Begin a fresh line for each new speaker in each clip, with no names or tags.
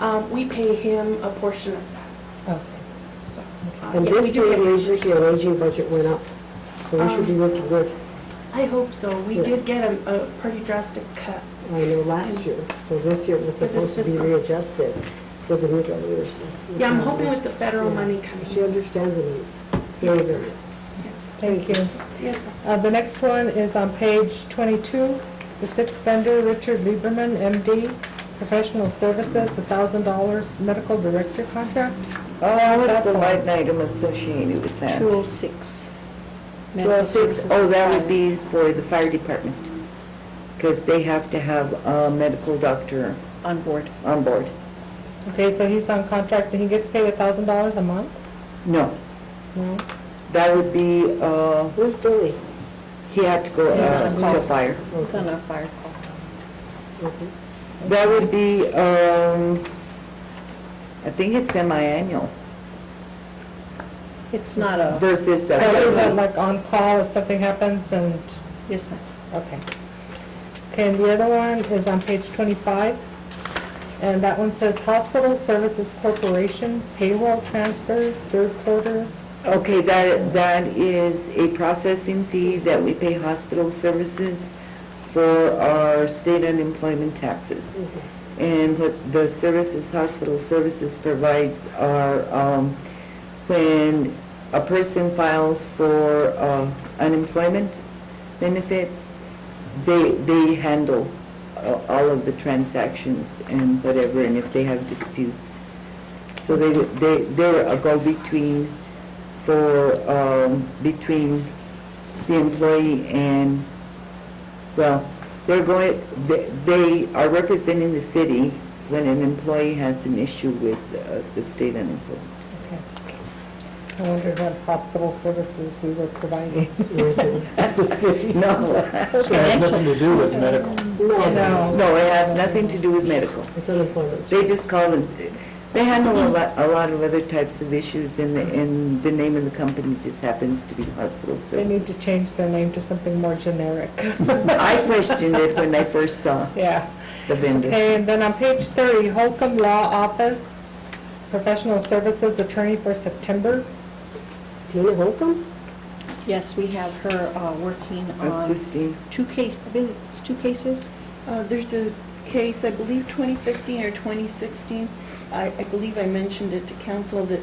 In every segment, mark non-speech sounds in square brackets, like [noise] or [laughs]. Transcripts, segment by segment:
Um, We pay him a portion of
Okay.
that, so. uh,
And
yeah, we
this
do
year,
get Um,
the
an
agency on aging budget went up, so we should be looking good.
I hope so. We
Yeah.
did get a a pretty drastic cut.
I know last year, so this year it was
For this
supposed to be
fiscal.
readjusted for the new governor. so-
Yeah, I'm hoping with the federal
Yeah.
money coming.
She understands the needs. Very
Yes.
good.
Yes.
Thank you.
Yes.
Uh, The next one is on page 22, the sixth vendor, Richard Lieberman, MD, professional services, $1,000 medical director contract.
Oh, what's the line item associated with that?
206.
206, oh, that would be for the fire department, because they have to have a medical doctor
On board.
on board.
Okay, so he's on contract, and he gets paid $1,000 a month?
No,
No?
that would be, uh,
Where's Billy?
he had to go
He's on
uh, to
call.
fire.
It's on our fire call.
Okay.
That would be, um, I think it's semi-annual
It's not a,
versus.
So is that
that.
like on call if something happens and,
yes, ma'am.
okay. Okay, and the other one is on page 25, and that one says Hospital Services Corporation payroll transfers, third quarter.
Okay, that, that is a processing fee that we pay hospital services for our state unemployment taxes. And what the services, hospital services provides are, um, when a person files for, uh, unemployment benefits, they, they handle uh, all of the transactions and whatever, and if they have disputes. So they, they, they're a go-between for, um, between the employee and, well, they're going, they- they are representing the city when an employee has an issue with uh, the
[laughs]
state unemployment. [laughs]
Okay. I wondered what hospital services we were providing.
No,
So it has nothing to do with medical.
No,
No.
no, it has nothing to do with medical.
it's unemployment.
They just call them, they handle a lot, a lot of other types of issues, and the, and the name of the company just happens to be hospital
They need to
services.
change their name to something more generic.
I questioned it when I first saw
Yeah.
the vendor.
Okay, and then on page 30, Holcomb Law Office, professional services attorney for September.
Tina Holcomb?
Yes, we have her uh, working on
Assisting,
two case, I believe it's two cases.
Uh, There's a case, I believe 2015 or 2016, I I believe I mentioned it to council, that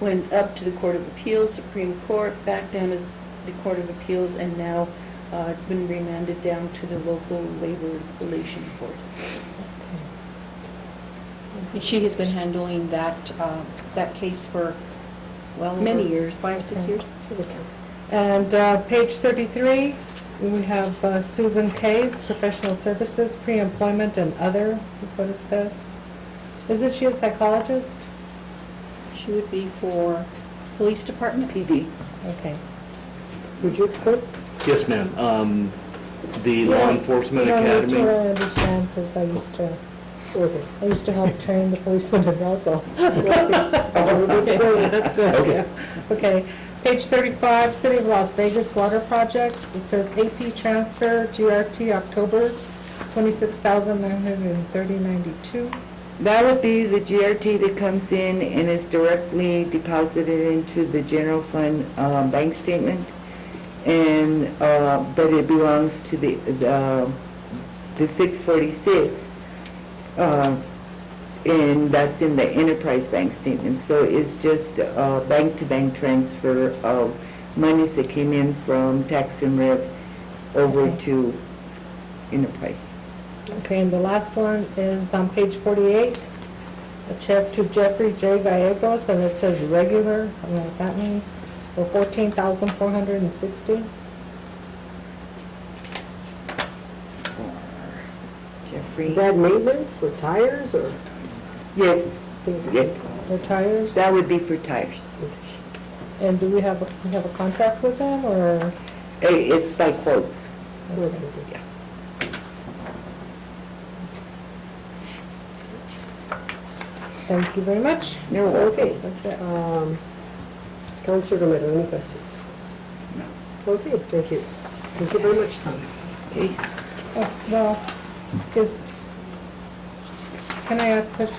went up to the Court of Appeals, Supreme Court, back down to s- the Court of Appeals, and now uh, it's been remanded down to the local labor relations board.
And she has been handling that, uh, that case for, well, over
Many years.
Five, six years.
And uh, page 33, we have uh, Susan Cave, professional services, pre-employment and other, is what it says. Isn't she a psychologist?
She would be for police department.
PD.
Okay.
Would you explain?
Yes, ma'am. Um, The Law Enforcement
You
Academy,
don't need to understand, because I used to,
Okay.
I used to help train the policemen in Roswell.
[laughs]
Okay.
That's good,
Okay.
yeah. Okay, page 35, City of Las Vegas Water Projects. It says AP transfer, GRT, October, 26930
That would be the GRT that comes in and is directly deposited into the general fund uh, bank statement, and, uh, but it belongs to the, the the 646, uh, and that's in the enterprise bank statement. So it's just a bank-to-bank transfer of monies that came in from tax and rev over
Okay.
to enterprise.
Okay, and the last one is on page 48, a check to Jeffrey J. Gallegos, and it says regular, I don't know what that means, for 14460
Jeffrey?
Is that maintenance or tires or?
Yes, yes.
for tires.
That would be for tires.
And do we have, a- we have a contract with them, or?
I- It's by quotes.
Okay.
Thank you very much.
You're welcome.
That's it.
Um, Counselor Romero, any questions? Okay, thank you. Thank you very much, Tom.
Okay.
Oh, Well, is, can I ask a question?